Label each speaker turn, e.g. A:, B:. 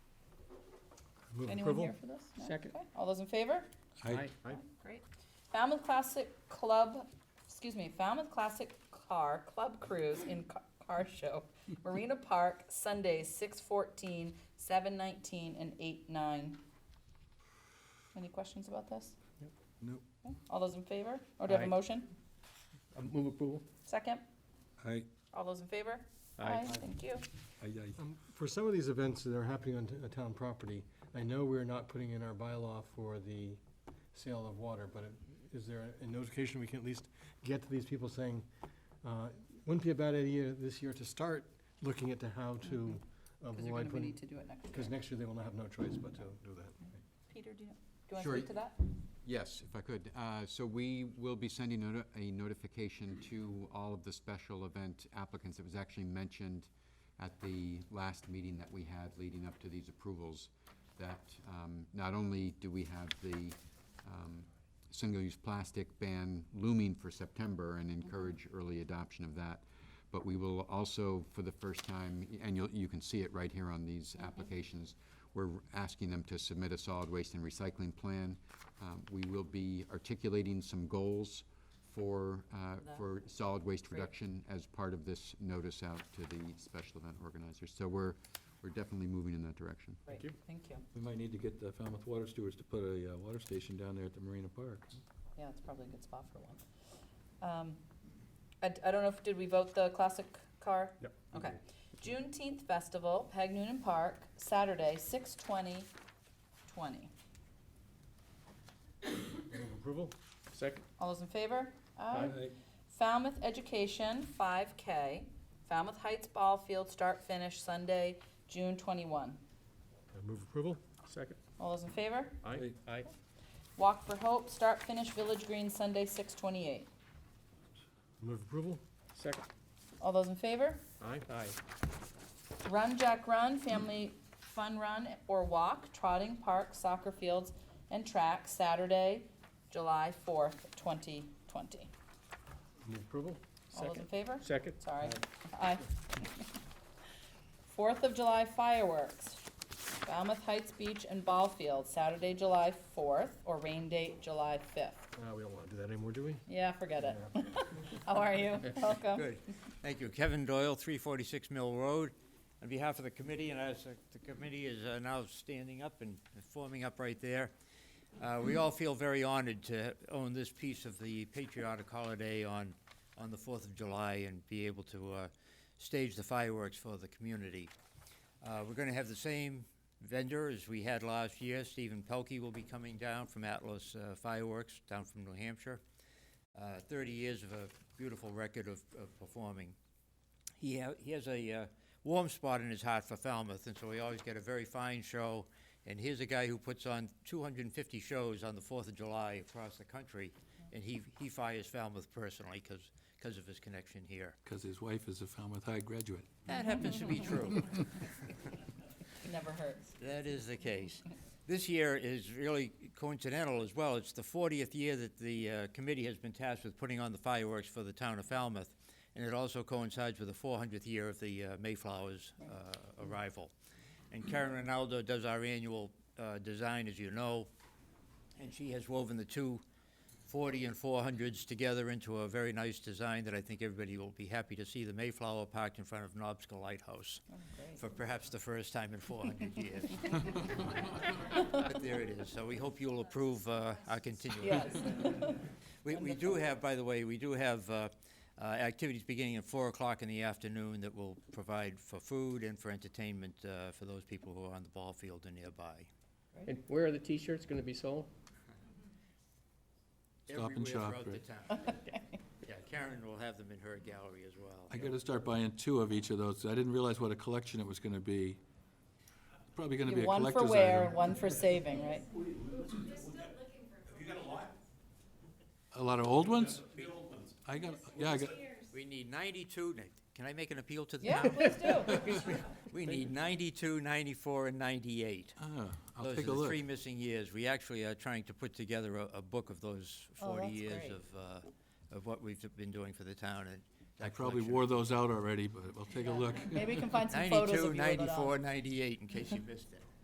A: Move
B: Anyone
A: approval.
B: here for this? No?
C: Second.
B: Okay. All those in favor?
A: Aye.
B: Great. Falmouth Classic Club, excuse me, Falmouth Classic Car Club Cruise in Ca- Car Show, Marina Park, Sundays, 6:14, 7:19, and eight nine. Any questions about this?
A: Nope.
B: Okay. All those in favor? Or do you have
C: Aye.
B: a motion?
C: Uh, Move approval?
B: Second?
A: Aye.
B: All those in favor? Thank you.
A: Aye, aye.
D: Um, For some of these events that are happening on t- uh, town property, I know we're not putting in our bylaw for the sale of water, but it- is there a notification we can at least get to these people saying, uh, wouldn't be a bad idea this year to start looking into how to
B: Because you're Mm-hmm. gonna
D: avoid,
B: be need
D: when
B: to do it next
D: because
B: year.
D: next year they will not have no choice but to do that.
B: Peter, do you, do you
E: Sure.
B: wanna speak to that?
E: Yes, if I could. Uh, So we will be sending noti- a notification to all of the special event applicants. It was actually mentioned at the last meeting that we had leading up to these approvals, that um, not only do we have the um, single-use plastic ban looming for September and encourage early adoption of that, but we will also, for the first time, and you'll, you can see it right here on these applications, we're asking them to submit a solid waste and recycling plan. Um, We will be articulating some goals for, uh,
B: That.
E: for solid waste
B: Great.
E: reduction as part of this notice out to the special event organizers. So we're, we're definitely moving in that direction.
B: Great.
C: you.
B: Thank you.
F: We might need to get the Falmouth Water Stewards to put a uh, water station down there at the Marina Park.
B: Yeah, it's probably a good spot for one. Um, I, d- I don't know if, did we vote the classic car?
D: Yep.
B: Okay. Juneteenth Festival, Peg Noonan Park, Saturday, six twenty, twenty.
D: Move approval?
C: Second?
B: All those in favor?
C: Aye.
B: Falmouth Education, five K, Falmouth Heights Ball Field, start finish, Sunday, June twenty-one.
D: Uh, Move approval?
C: Second?
B: All those in favor?
C: Aye. Aye.
B: Walk for Hope, start finish, Village Green, Sunday, six twenty-eight.
D: Move approval?
C: Second?
B: All those in favor?
C: Aye. Aye.
B: Run Jack Run, Family Fun Run or Walk, Trotting Park, Soccer Fields, and Track, Saturday, July fourth, twenty twenty.
D: Move approval?
B: All those in
C: Second?
B: favor?
C: Second?
B: Sorry. Aye. Fourth of July fireworks, Falmouth Heights Beach and Ball Field, Saturday, July fourth, or rain date, July fifth.
D: Uh, We don't want to do that anymore, do we?
B: Yeah, forget it. How are you? Welcome.
G: Good, thank you. Kevin Doyle, 346 Mill Road. On behalf of the committee, and as the- the committee is uh, now standing up and forming up right there, uh, we all feel very honored to own this piece of the patriotic holiday on, on the 4th of July and be able to uh, stage the fireworks for the community. Uh, We're going to have the same vendor as we had last year. Stephen Pelkey will be coming down from Atlas uh, Fireworks, down from New Hampshire uh, 30 years of a beautiful record of, of performing. He, ha- he has a uh, warm spot in his heart for Falmouth, and so we always get a very fine show. And here's a guy who puts on 250 shows on the 4th of July across the country, and he, he fires Falmouth personally because of his connection here.
F: Because his wife is a Falmouth High graduate.
G: That happens to be true.
B: Never hurts.
G: That is the case. This year is really coincidental as well. It's the 40th year that the uh, committee has been tasked with putting on the fireworks for the town of Falmouth, and it also coincides with the 400th year of the uh, Mayflower's uh, arrival. And Karen Ronaldo does our annual uh, design, as you know, and she has woven the two 40 and 400s together into a very nice design that I think everybody will be happy to see, the Mayflower parked in front of Nobsco Lighthouse
B: Oh, great.
G: for perhaps the first time in 400 years. But there it is, so we hope you'll approve uh, our continuing.
B: Yes.
G: We we do have, by the way, we do have uh, uh, activities beginning at 4 o'clock in the afternoon that will provide for food and for entertainment uh, for those people who are on the ball field and nearby.
C: And where are the T-shirts gonna be sold?
F: Stop and shop,
G: Everywhere
F: right?
G: throughout the town. Yeah, Karen will have them in her gallery as well.
F: I gotta start buying two of each of those. I didn't realize what a collection it was gonna be. Probably gonna be a
B: One for
F: collector's
B: wear,
F: item.
B: one for saving, right?
F: A lot of old ones? I got, yeah, I got,
G: We need 92, na- can I make an appeal to the
B: Yeah,
G: town?
B: please do.
G: We need 92, 94, and 98.
F: ah, I'll
G: Those are
F: take a
G: the
F: look.
G: three missing years. We actually are trying to put together a, a book of those
B: Oh,
G: forty
B: that's
G: years
B: great.
G: of, uh, of what we've been doing for the town and.
F: I
G: that
F: probably
G: collection.
F: wore those out already, but I'll take a
B: Yeah.
F: look.
B: Maybe we can find some photos
G: Ninety-two,
B: of you with it on.
G: ninety-four, ninety-eight, in case you missed it.